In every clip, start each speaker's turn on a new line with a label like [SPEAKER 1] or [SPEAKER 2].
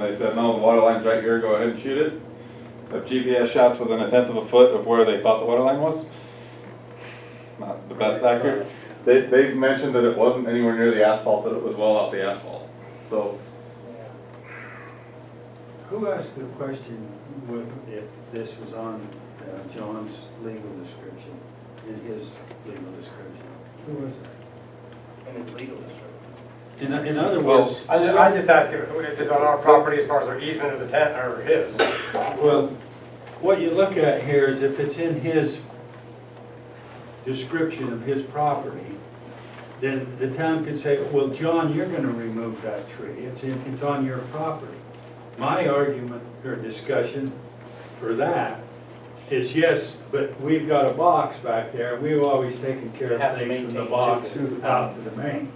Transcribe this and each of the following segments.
[SPEAKER 1] They said, no, the water line's right here, go ahead and shoot it. If GPS shots within a tenth of a foot of where they thought the water line was, not the best accurate. They, they mentioned that it wasn't anywhere near the asphalt, that it was well off the asphalt. So,
[SPEAKER 2] Who asked the question with- if this was on uh, John's legal description, in his legal description? Who was that?
[SPEAKER 3] And it's legal district.
[SPEAKER 2] In, in other
[SPEAKER 1] Well,
[SPEAKER 2] words,
[SPEAKER 3] I just, I just ask if if it's on our property as far as our easement of the tent or his.
[SPEAKER 2] well, what you look at here is if it's in his description of his property, then the town could say, well, John, you're gonna remove that tree, it's in, it's on your property. My argument or discussion for that is yes, but we've got a box back there, we've always taken care
[SPEAKER 3] Have
[SPEAKER 2] of
[SPEAKER 3] to
[SPEAKER 2] things from
[SPEAKER 3] maintain
[SPEAKER 2] the box
[SPEAKER 3] too.
[SPEAKER 2] out to the main.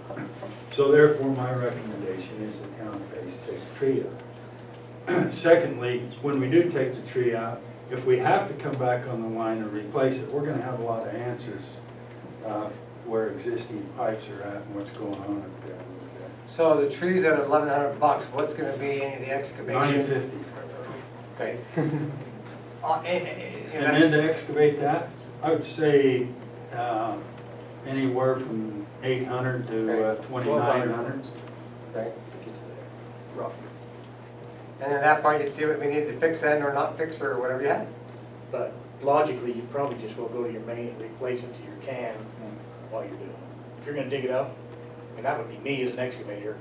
[SPEAKER 2] So therefore, my recommendation is the town pays takes the tree out. Secondly, when we do take the tree out, if we have to come back on the line and replace it, we're gonna have a lot of answers uh, where existing pipes are at and what's going on up there with
[SPEAKER 4] So the trees at eleven hundred bucks, what's gonna be any of the
[SPEAKER 2] that. Nine
[SPEAKER 4] excavation?
[SPEAKER 2] fifty.
[SPEAKER 4] Okay. Uh, eh, eh, eh,
[SPEAKER 2] And
[SPEAKER 4] that's-
[SPEAKER 2] then to excavate that, I would say, um, anywhere from eight hundred to uh, twenty-nine hundred.
[SPEAKER 4] okay. And then that point, you'd see what we need to fix then or not fix or whatever you have.
[SPEAKER 3] But logically, you probably just will go to your main and replace it to your can while you're doing it. If you're gonna dig it up, and that would be me as an excavator,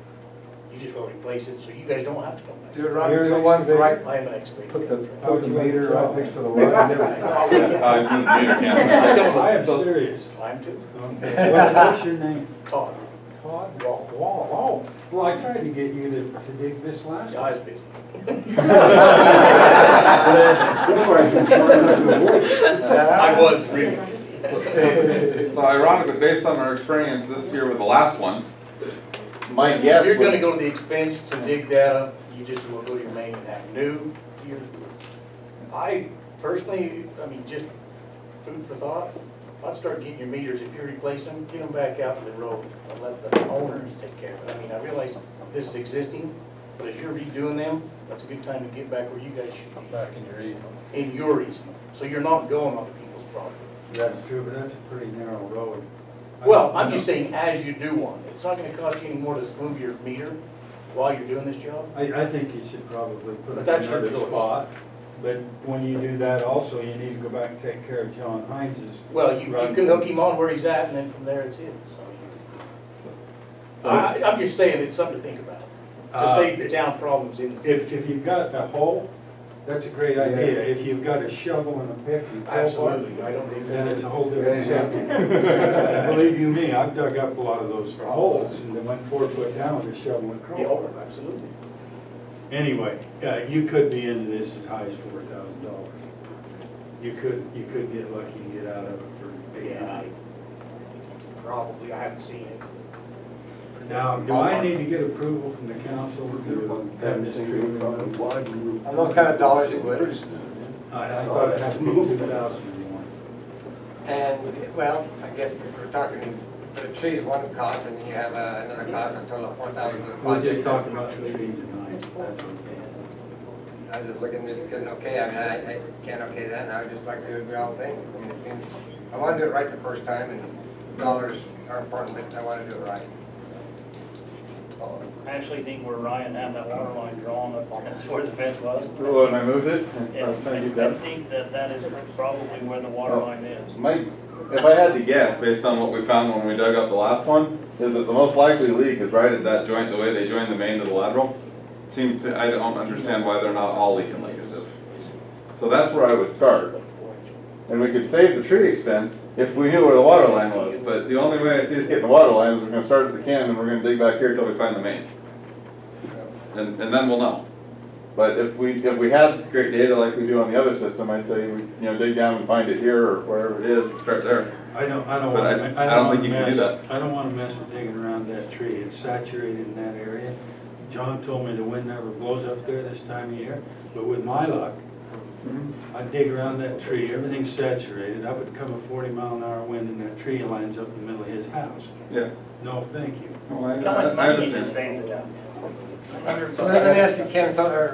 [SPEAKER 3] you just go replace it, so you guys don't have to come back.
[SPEAKER 4] Do it right,
[SPEAKER 2] You're
[SPEAKER 4] do
[SPEAKER 2] an
[SPEAKER 4] it once the right.
[SPEAKER 3] I am an
[SPEAKER 5] Put the,
[SPEAKER 3] excavator.
[SPEAKER 5] put the meter right next to the line.
[SPEAKER 1] I, I meter camera.
[SPEAKER 2] I am serious.
[SPEAKER 3] Climb to
[SPEAKER 2] Okay. What's, what's your name?
[SPEAKER 3] Todd.
[SPEAKER 2] Todd? Wall, Wall, Well, I tried to get you to, to dig this last
[SPEAKER 3] The eye's busy. I was really.
[SPEAKER 1] So ironically, based on our experience this year with the last one, my guess
[SPEAKER 3] If you're gonna
[SPEAKER 1] was,
[SPEAKER 3] go to the expense to dig that up, you just will go to your main and have new, your, I personally, I mean, just food for thought, I'd start getting your meters, if you replace them, get them back out to the road, and let the owners take care of it. I mean, I realize this is existing, but if you're redoing them, that's a good time to get back where you guys should be. Back in your easement. In your easement, so you're not going onto people's property.
[SPEAKER 2] That's true, but that's a pretty narrow road.
[SPEAKER 3] Well, I'm just saying, as you do one, it's not gonna cost you any more to move your meter while you're doing this job.
[SPEAKER 2] I, I think you should probably put
[SPEAKER 3] But
[SPEAKER 2] it
[SPEAKER 3] that's
[SPEAKER 2] in
[SPEAKER 3] your
[SPEAKER 2] another
[SPEAKER 3] choice.
[SPEAKER 2] spot, but when you do that also, you need to go back and take care of John Heinz's.
[SPEAKER 3] Well, you, you can hook him on where he's at, and then from there it's his. I, I- I'm just saying, it's something to think about, to
[SPEAKER 2] Uh,
[SPEAKER 3] save the town problems in.
[SPEAKER 2] If, if you've got a hole, that's a great idea, if you've got a shovel and a pick, you pull one,
[SPEAKER 3] Absolutely, I don't think
[SPEAKER 2] then it's
[SPEAKER 3] that.
[SPEAKER 2] a whole different subject. Believe you me, I've dug up a lot of those holes, and they went four foot down with a shovel and
[SPEAKER 3] Yeah,
[SPEAKER 2] crawl.
[SPEAKER 3] oh, absolutely.
[SPEAKER 2] Anyway, uh, you could be into this as high as four thousand dollars. You could, you could get lucky and get out of it for eight
[SPEAKER 3] Yeah,
[SPEAKER 2] hundred.
[SPEAKER 3] I, probably, I haven't seen it.
[SPEAKER 2] Now, do I need to get approval from the council to have this tree removed?
[SPEAKER 4] On those kind of dollars you would.
[SPEAKER 2] I I thought it had to be two thousand and one.
[SPEAKER 4] And, well, I guess if we're talking, the tree's one cost and then you have uh, another cost, a total of four thousand for the
[SPEAKER 2] We're
[SPEAKER 4] project.
[SPEAKER 2] just talking about the tree tonight, that's okay.
[SPEAKER 4] I was just looking, just getting okay, I mean, I, I can't okay that, and I would just like to do it the all thing. I mean, it seems, I wanna do it right the first time, and dollars are important, but I wanna do it right.
[SPEAKER 6] I actually think where Ryan had that water line drawn up, that's where the fence was.
[SPEAKER 1] oh, and I moved it, I was trying to get
[SPEAKER 6] And
[SPEAKER 1] that.
[SPEAKER 6] I think that that is probably where the water line is.
[SPEAKER 1] Mike, if I had to guess, based on what we found when we dug up the last one, is that the most likely leak is right at that joint, the way they join the main to the lateral. Seems to, I don't understand why they're not all leaking like as if. So that's where I would start. And we could save the tree expense if we knew where the water line was, but the only way I see us getting the water line is we're gonna start at the can and we're gonna dig back here till we find the main. And, and then we'll know. But if we, if we had great data like we do on the other system, I'd say, we you know, dig down and find it here or wherever it is, and start there.
[SPEAKER 2] I don't, I don't
[SPEAKER 1] But
[SPEAKER 2] want
[SPEAKER 1] I-
[SPEAKER 2] to.
[SPEAKER 1] I don't think you can do
[SPEAKER 2] I don't want to mess with digging around that tree. It's saturated in that area. John told me the wind never blows up there this time of year, but with my luck, I dig around that tree, everything's saturated. I would come a forty mile an hour wind and that tree lands up in the middle of his house.
[SPEAKER 1] Yeah.
[SPEAKER 2] No, thank you.
[SPEAKER 1] Well, I-
[SPEAKER 6] How much
[SPEAKER 1] I
[SPEAKER 6] money
[SPEAKER 1] understand.
[SPEAKER 6] you just saved it up?
[SPEAKER 4] So let let me ask you, Ken, so, or